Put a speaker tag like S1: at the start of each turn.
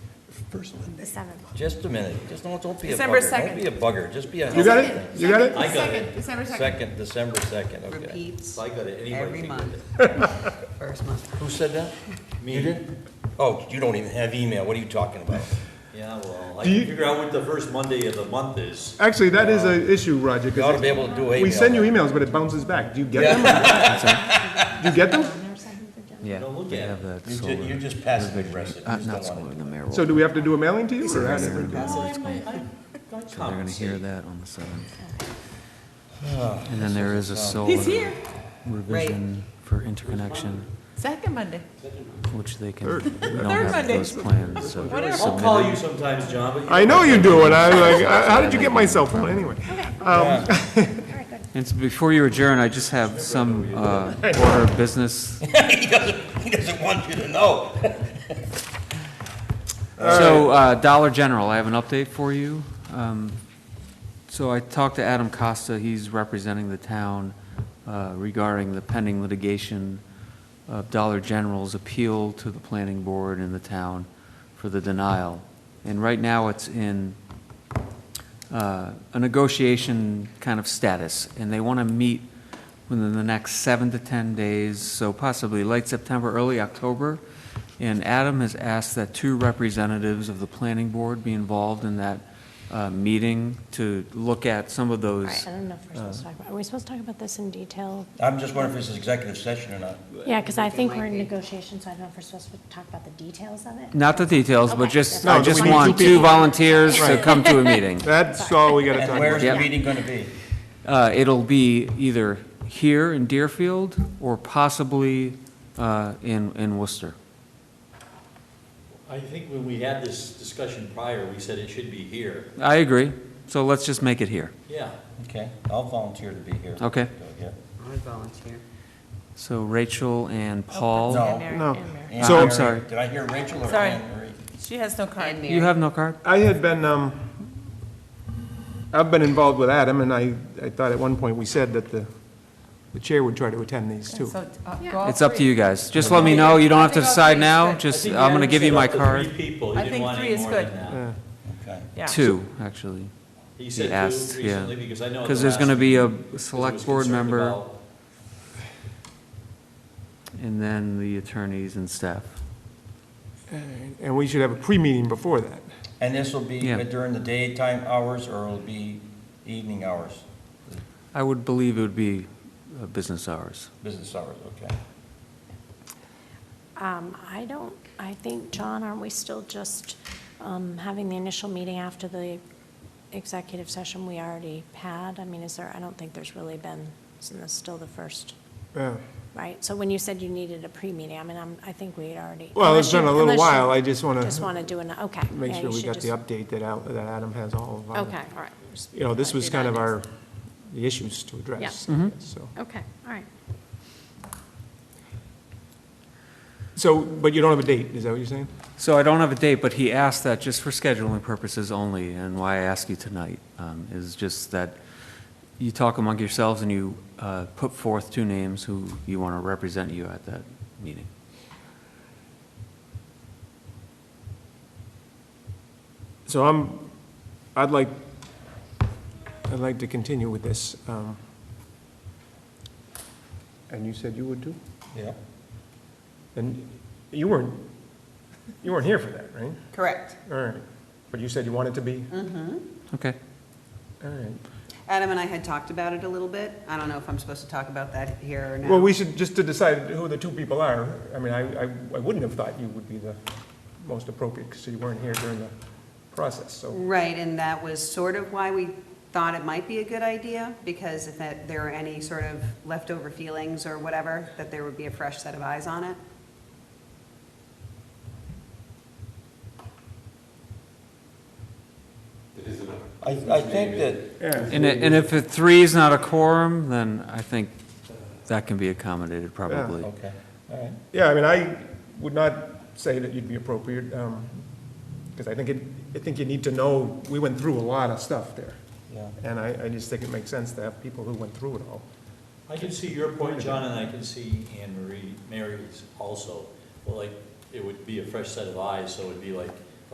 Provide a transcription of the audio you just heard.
S1: First Monday.
S2: The seventh.
S3: Just a minute, just don't, don't be a
S4: December
S3: bugger, don't
S4: 2nd.
S3: be a bugger, just be a.
S5: You got it? You got it?
S3: I got
S4: Second,
S3: it.
S4: December second.
S3: Second, December second, okay.
S6: Repeats
S3: I got it, anybody
S6: every
S3: can get
S6: month. First month.
S3: it. Who said that? Me. You did? Oh, you don't even have email, what are you talking about?
S7: Yeah, well, I
S5: Do you-
S7: can figure out what the first Monday of the month is.
S5: Actually, that is an issue, Roger. 'cause
S3: You ought to be able to do email.
S5: We send you emails, but it bounces back. Do you get them? Do you get them?
S8: Yeah.
S7: Don't look
S8: they
S7: at it.
S8: have that
S3: You ju-
S8: solar-
S3: You're just passive aggressive,
S8: Uh,
S3: you just
S8: not
S3: don't
S8: solar,
S3: want
S8: the mayor.
S5: So do we have to do a mailing to you or how does it work?
S8: So
S7: I might- I- I
S8: they're gonna hear
S7: compensate.
S8: that on the seventh. And then there is a solar
S4: He's here.
S8: revision for interconnection,
S4: Second Monday.
S8: which they can,
S5: Third.
S8: don't
S4: Third
S8: have
S4: Monday.
S8: those plans, so they're
S4: Whatever.
S7: I'll call you
S8: submitted.
S7: sometimes, John, but you
S5: I know you do, and I'm like, uh, how did you get my cell phone anyway?
S8: And so before you adjourn, I just have some, uh, order of business
S3: it. He doesn't, he doesn't want you to know.
S8: So, uh, Dollar General, I have an update for you. Um, So I talked to Adam Costa, he's representing the town uh, regarding the pending litigation of Dollar General's appeal to the planning board and the town for the denial. And right now, it's in uh, a negotiation kind of status, and they want to meet within the next seven to 10 days, so possibly late September, early October. And Adam has asked that two representatives of the planning board be involved in that uh, meeting to look at some of
S2: All
S8: those.
S2: right, I don't know if we're supposed to talk about, are we supposed to talk about this in detail?
S3: I'm just wondering if this is executive session or not.
S2: Yeah, because I think
S6: might
S2: we're in
S6: be.
S2: negotiations, so I don't know if we're supposed to talk about the details of it.
S8: Not the details, but
S2: Okay.
S8: just,
S2: No,
S8: I
S5: but
S8: just
S5: we need
S8: want
S5: two
S8: two
S5: people.
S8: volunteers to
S5: Right.
S8: come to a meeting.
S5: That's all we gotta talk
S3: And
S5: about.
S3: where's the
S8: Yeah.
S3: meeting gonna be?
S8: Uh, It'll be either here in Deerfield or possibly uh, in in Worcester.
S7: I think when we had this discussion prior, we said it should be here.
S8: I agree, so let's just make it here.
S7: Yeah.
S3: Okay, I'll volunteer to be here.
S8: Okay.
S3: Yeah.
S6: I volunteer.
S8: So Rachel and Paul,
S3: No.
S5: No.
S3: Anne
S5: So- I'm
S3: Marie-
S8: sorry.
S3: Did I hear Rachel or
S4: Sorry.
S3: Anne Marie?
S4: She has no card.
S6: And
S8: you
S6: Mary.
S8: have no card?
S5: I had been, um, I've been involved with Adam, and I, I thought at one point we said that the, the chair would try to attend these too.
S4: So, uh, go all
S8: It's up to
S4: three.
S8: you guys. Just let me know, you don't have to decide now,
S7: I
S8: just,
S7: think
S8: I'm going to
S7: Adam
S8: give you
S7: said
S8: my
S7: up to
S8: card.
S7: Three people, he
S4: I
S7: didn't
S4: think
S7: want
S4: three
S7: any
S4: is
S7: more than
S4: good.
S7: that.
S5: Yeah.
S3: Okay.
S4: Yeah.
S8: Two, actually.
S7: He
S8: He
S7: said
S8: asked,
S7: two
S8: yeah.
S7: recently, because I know. at
S8: Because
S7: the
S8: there's
S7: last
S8: going to be
S7: meeting,
S8: a
S7: 'cause I was
S8: select board
S7: concerned
S8: member,
S7: about-
S8: and then the attorneys and staff.
S5: And we should have a pre-meeting before that.
S3: And this will be
S8: Yeah.
S3: during the daytime hours or it'll be evening hours,
S8: I would believe it would be uh, business hours.
S3: business hours, okay?
S2: Um, I don't, I think, John, aren't we still just um, having the initial meeting after the executive session we already had? I mean, is there, I don't think there's really been, isn't this still the first,
S5: Yeah.
S2: right? So when you said you needed a pre-meeting, I mean, I'm, I think we had already.
S5: Well, it's
S2: unless you-
S5: been a little
S2: unless you
S5: while, I just wanna
S2: Just want to do an, okay.
S5: Make
S2: yeah,
S5: sure
S2: you
S5: we
S2: should
S5: got the
S2: just-
S5: update that out, that Adam has all of our.
S2: Okay, all right. Just
S5: You know, this
S2: wanna
S5: was
S2: do that
S5: kind of
S2: next.
S5: our, the issues to address.
S2: Yeah.
S5: So,
S2: Okay, all right.
S5: so, but you don't have a date, is that what you're saying?
S8: So I don't have a date, but he asked that just for scheduling purposes only, and why I ask you tonight um, is just that you talk among yourselves and you uh, put forth two names who you want to represent you at that meeting.
S5: So I'm, I'd like, I'd like to continue with this. um, And you said you would too?
S3: Yeah.
S5: And you weren't, you weren't here for that, right?
S6: Correct.
S5: All right. But you said you wanted to be?
S8: Okay.
S5: All right.
S6: Adam and I had talked about it a little bit. I don't know if I'm supposed to talk about that here or now.
S5: Well, we should, just to decide who the two people are, I mean, I, I I wouldn't have thought you would be the most appropriate, because you weren't here during the process, so.
S6: Right, and that was sort of why we thought it might be a good idea, because if that- there are any sort of leftover feelings or whatever, that there would be a fresh set of eyes on it.
S3: I, I think that,
S8: And i- and if a three is not a quorum, then I think that can be accommodated probably.
S3: okay, all right.
S5: Yeah, I mean, I would not say that you'd be appropriate, because I think it, I think you need to know, we went through a lot of stuff there.
S3: Yeah.
S5: And I, I just think it makes sense to have people who went through it all.
S7: I can see your point, John, and I can see Anne Marie, Mary's also. Well, like, it would be a fresh set of eyes, so it'd be like,